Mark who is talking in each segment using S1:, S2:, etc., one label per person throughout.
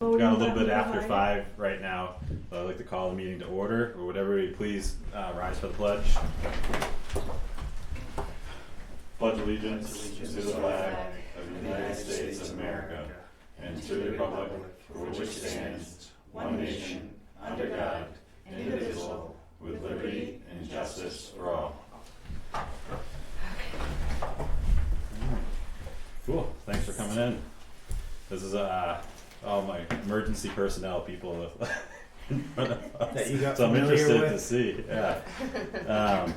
S1: We've got a little bit after five right now. So I'd like to call the meeting to order, or would everybody please uh, rise for the pledge? Pledge allegiance to the flag of the United States of America and to the republic for which it stands, one nation, under God, indivisible, with liberty and justice for all. Cool, thanks for coming in. This is, uh, all my emergency personnel people.
S2: That you got
S1: So I'm
S2: familiar
S1: interested to
S2: with?
S1: see, yeah. Um,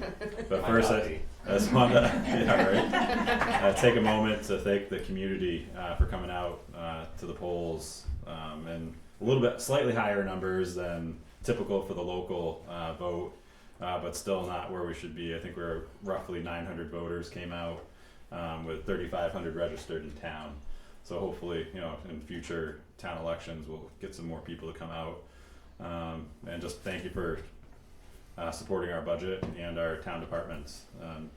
S1: but first, I, I just want to, yeah, right. Uh, take a moment to thank the community, uh, for coming out, uh, to the polls, um, and a little bit, slightly higher numbers than typical for the local, uh, vote, uh, but still not where we should be. I think we're roughly nine hundred voters came out, um, with thirty-five hundred registered in town. So hopefully, you know, in future town elections, we'll get some more people to come out. Um, and just thank you for uh, supporting our budget and our town departments. Um,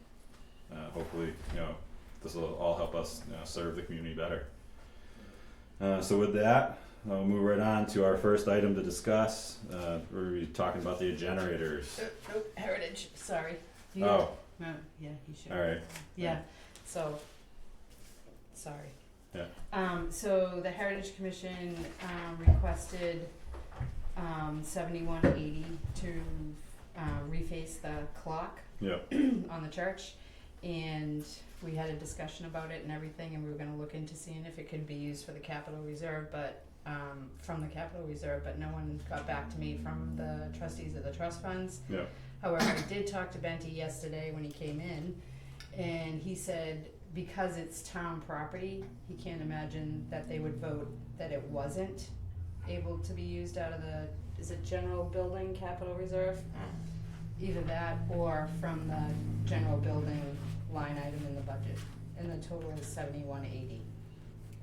S1: uh, hopefully, you know, this will all help us you know, serve the community better. Uh, so with that, I'll move right on to our first item to discuss. Uh, we're gonna be talking about the generators.
S3: Oh, oh, Heritage, sorry. You-
S1: Oh,
S3: No, yeah, you should.
S1: all right.
S3: Yeah, so, sorry.
S1: Yeah.
S3: Um, so the Heritage Commission, um, requested, um, seventy-one eighty to, uh, reface the clock
S1: Yeah.
S3: on the church. And we had a discussion about it and everything, and we were gonna look into seeing if it could be used for the capital reserve, but, um, from the capital reserve, but no one got back to me from the trustees of the trust funds.
S1: Yeah.
S3: However, I did talk to Benty yesterday when he came in, and he said because it's town property, he can't imagine that they would vote that it wasn't able to be used out of the, is it general building capital reserve? Either that or from the general building line item in the budget, and the total is seventy-one eighty,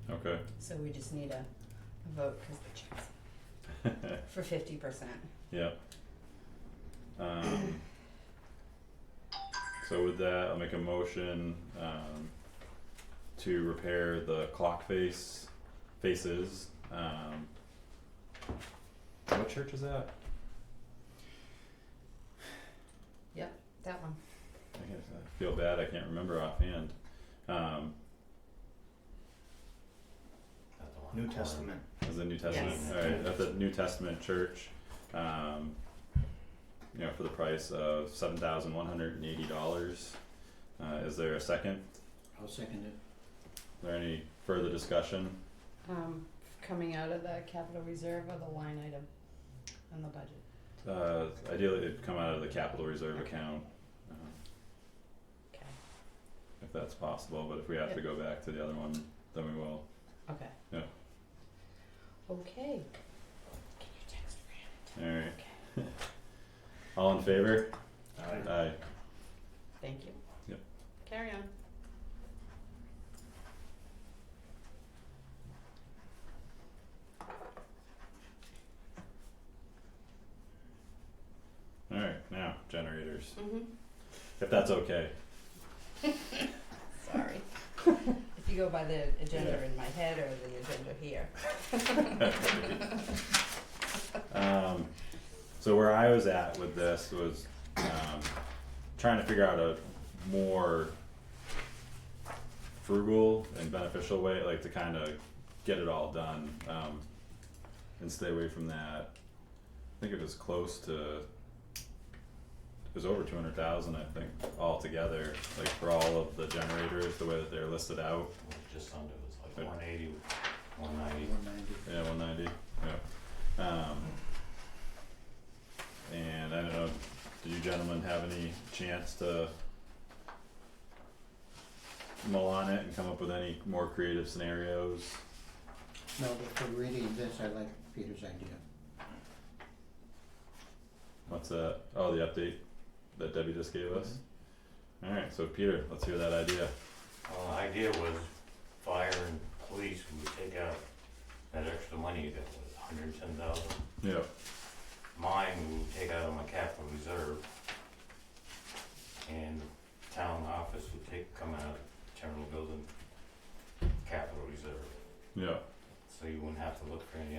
S1: Okay.
S3: so we just need a a vote, cause the check's for fifty percent.
S1: Yep. Um, so with that, I'll make a motion, um, to repair the clock face, faces, um. What church is that?
S3: That one,
S1: I guess I feel bad, I can't remember offhand, um,
S2: New Testament.
S1: is it New Testament?
S3: Yes.
S1: Alright, that's a New Testament church, um, you know, for the price of seven thousand one hundred and eighty dollars. Uh, is there a second?
S2: I'll second it.
S1: Is there any further discussion?
S3: um, coming out of the capital reserve or the line item in the budget.
S1: Uh, ideally, it'd come out of the capital reserve account, uh,
S3: Okay,
S1: if that's possible, but if we have to go back to the other one, then we will.
S3: okay.
S1: Yeah.
S3: Okay. Can you text Fran?
S1: Alright,
S3: Okay,
S1: all in favor?
S2: Aye.
S1: Aye.
S3: thank you.
S1: Yep.
S3: Carry on.
S1: Alright, now, generators,
S3: Mm-hmm.
S1: if that's okay.
S3: Sorry. If you go by the agenda in my head or the agenda here.
S1: Um, so where I was at with this was, um, trying to figure out a more frugal and beneficial way, like to kind of get it all done, um, and stay away from that. I think it was close to, it was over two hundred thousand, I think, altogether, like for all of the generators, the way that they're listed out.
S4: Just under, it was
S1: But-
S4: like one eighty, one
S1: Uh,
S4: ninety.
S2: One ninety.
S1: Yeah, one ninety, yeah. Um. And I don't know, did you gentlemen have any chance to mull on it and come up with any more creative scenarios?
S5: No, but for reading this, I like Peter's idea.
S1: What's that, oh, the update that Debbie just gave us? Alright, so Peter, let's hear that idea.
S4: Well, the idea was fire and police would take out that extra money that was hundred and ten thousand.
S1: Yeah.
S4: Mine we would take out of my capital reserve. And town office would take, come out of general building, capital reserve.
S1: Yeah,
S4: So you wouldn't have to look for any